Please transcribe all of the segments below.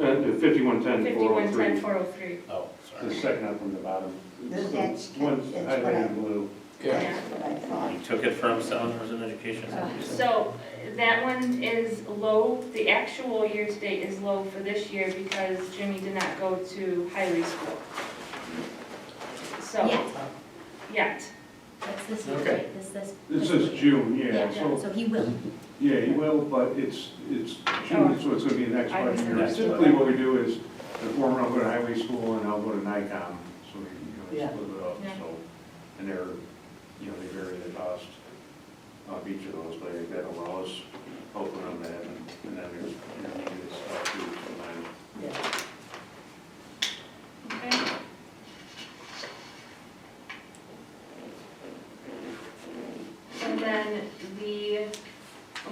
Uh, fifty-one ten four oh Fifty-one ten three, four oh three. Oh, the sorry. second up from the bottom. That's- that's One's what I- highlighted in blue. Yeah. That's what I thought. He took it from Southerners in Education. So that one is low, the actual year-to-date is low for this year because Jimmy did not go to highway school. So, Yet, yet, that's this year, Okay. right? This, this. This is June, yeah, so, So he will. yeah, Oh. you will, but it's, it's June, so it's gonna be the next I budget year. misunderstood. Typically, what we do is, the former, I'll go to highway school, and I'll go to NICOM, so we, you Yeah. know, split it up, Yeah. so. And they're, you know, they vary the cost of each of those, but I think that allows, open on that, and and then there's, you know, maybe this stuff too, sometimes. Yeah. okay? And then the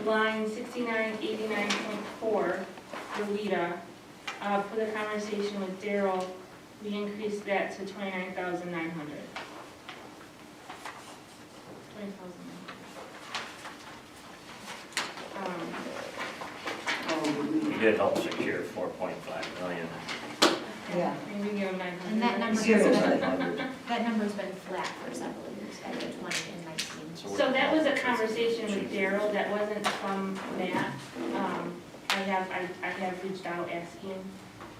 line sixty-nine eighty-nine point four, Rowita, uh, for the conversation with Daryl, we increased that to twenty-nine thousand nine hundred. Twenty thousand nine hundred. Um, Oh, He did help secure four point five million. Yeah. And we give them nine hundred. And that number has Zero. been, that number's been flat for several years, at the twenty and nineteen. So that was a conversation with Daryl, that wasn't from Matt. Um, I have, I, I have reached out asking,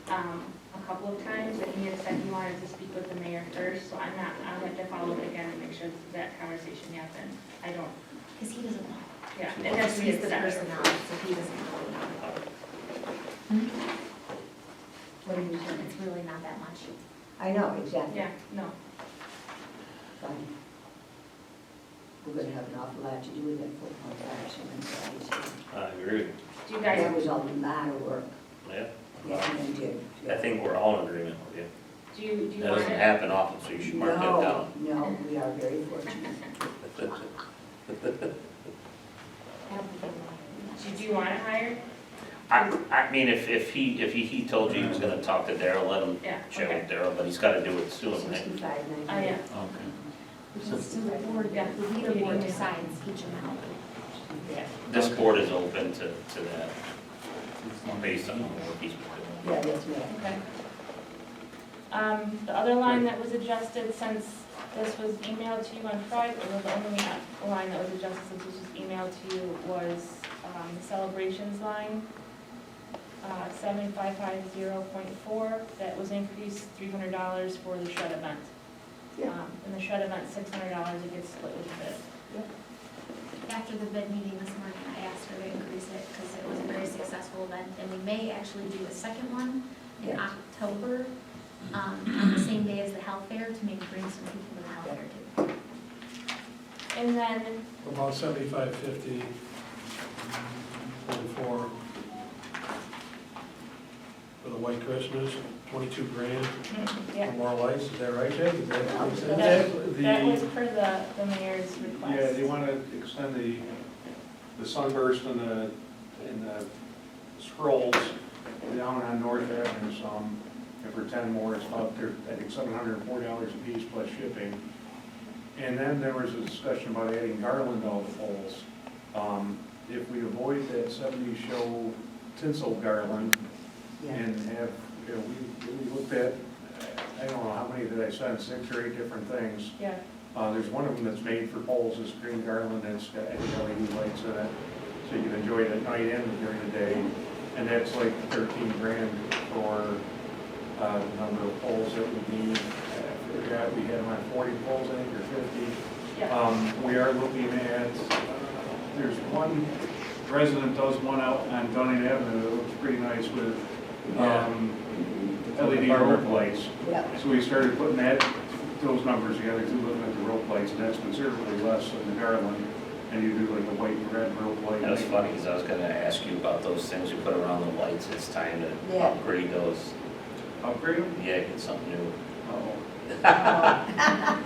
um, a couple of times, and he had said he wanted to speak with the mayor first, so I'm not, I'll have to follow up again and make sure that conversation happened. I don't, Because he doesn't know. yeah, and that's me, He's it's the personnel, so he doesn't know. What are you saying? It's really not that much. I know, exactly. Yeah, no, Fine. We're gonna have an awful lot to do with that football player, so I'm glad it's- I agree. do you That guys, was a lot of work, Yeah. yeah, they did. I think we're all in agreement with you. do you, do you That want to? doesn't happen often, so you should mark that No, down. no, we are very fortunate. I don't think he Do you want to hire? I, I mean, if, if he, if he, he told you he was gonna talk to Daryl, let him Yeah, chat okay. with Daryl, but he's gotta do it soon, right? Sixty-five, ninety. Oh, yeah, Okay. knows. Because still the board, Yeah. the leader board decides each amount. Oh, yeah. This board is open to, to that, based on the work he's been doing. Yeah, that's right. Okay. Um, the other line that was adjusted since this was emailed to you on Friday, or the only line that was adjusted since this was emailed to you was, um, the celebrations line. Uh, seven five five zero point four, that was increased three hundred dollars for the shred event. Yeah. Um, and the shred event, six hundred dollars, it gets split with the bid. After the bid meeting this morning, I asked her to increase it because it was a very successful event. And we may actually do a second one in Yeah. October, um, on the same day as the health fair to maybe bring some people to the health fair too. And then About seventy-five fifty for, for the white Christmas, twenty-two grand Yeah. for more lights, is that right, Jake? Is that what you said? That- that was The, per the, the mayor's request. yeah, they wanna extend the, the sunburst and the, and the scrolls down on North Avenue some, and for ten more, it's about, there, I think, seven hundred and four dollars a piece plus shipping. And then there was a discussion about adding garland to all the poles. Um, if we avoid that seventy show tinsel garland, Yeah. and have, you know, we, we looked at, I don't know how many that I sent, six or eight different things. Yeah, Uh, there's one of them that's made for poles, this green garland, that's got LED lights in it, so you can enjoy it at night and during the day. And that's like thirteen grand for, uh, the number of poles that we need. I forgot, we had them on forty poles, I think, or fifty. yeah. Um, we are looking at, there's one resident does one out on Dunning Avenue that looks pretty nice with, um, LED rope lights. Yeah, So we started putting that, those numbers together, too, looking at the rope lights, and that's considerably less than the Garland. And you do like a white and red rope light. That was funny, because I was gonna ask you about those things you put around the lights, it's time to Yeah. upgrade those, Upgrade them? yeah, get something new. Oh. Better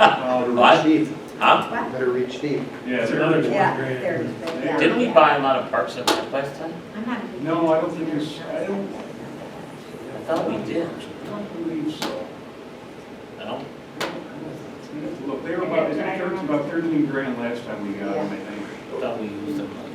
Uh, What? reach deep, Huh? What? better reach deep. Yeah, it's another, Yeah, there it is, right, yeah. Didn't we buy them out of Parks and Rec last time? I'm not a big. no, I don't think it's, I don't, I thought we did. I don't believe so. No? Look, they were about, I think it was about thirteen grand last time we got them, I think. I thought we used them